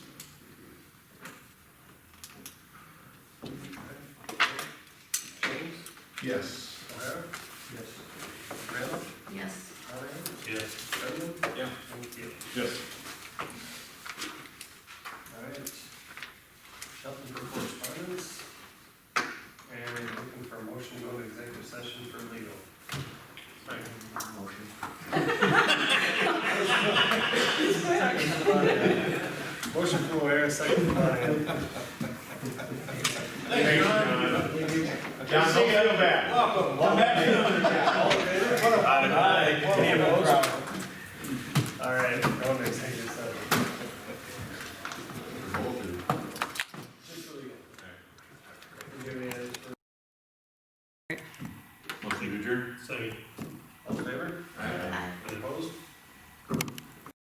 Yes. O'Hara? Yes. Randall? Yes. Monahan? Yes. Redmond? Yeah. Thank you. Yes. All right. Nothing for correspondence. And looking for a motion to go to executive session for legal. Motion. Motion from O'Hara, second from Monahan. Thank you, John. John, don't feel bad. Welcome. All in favor? Aye. Any opposed?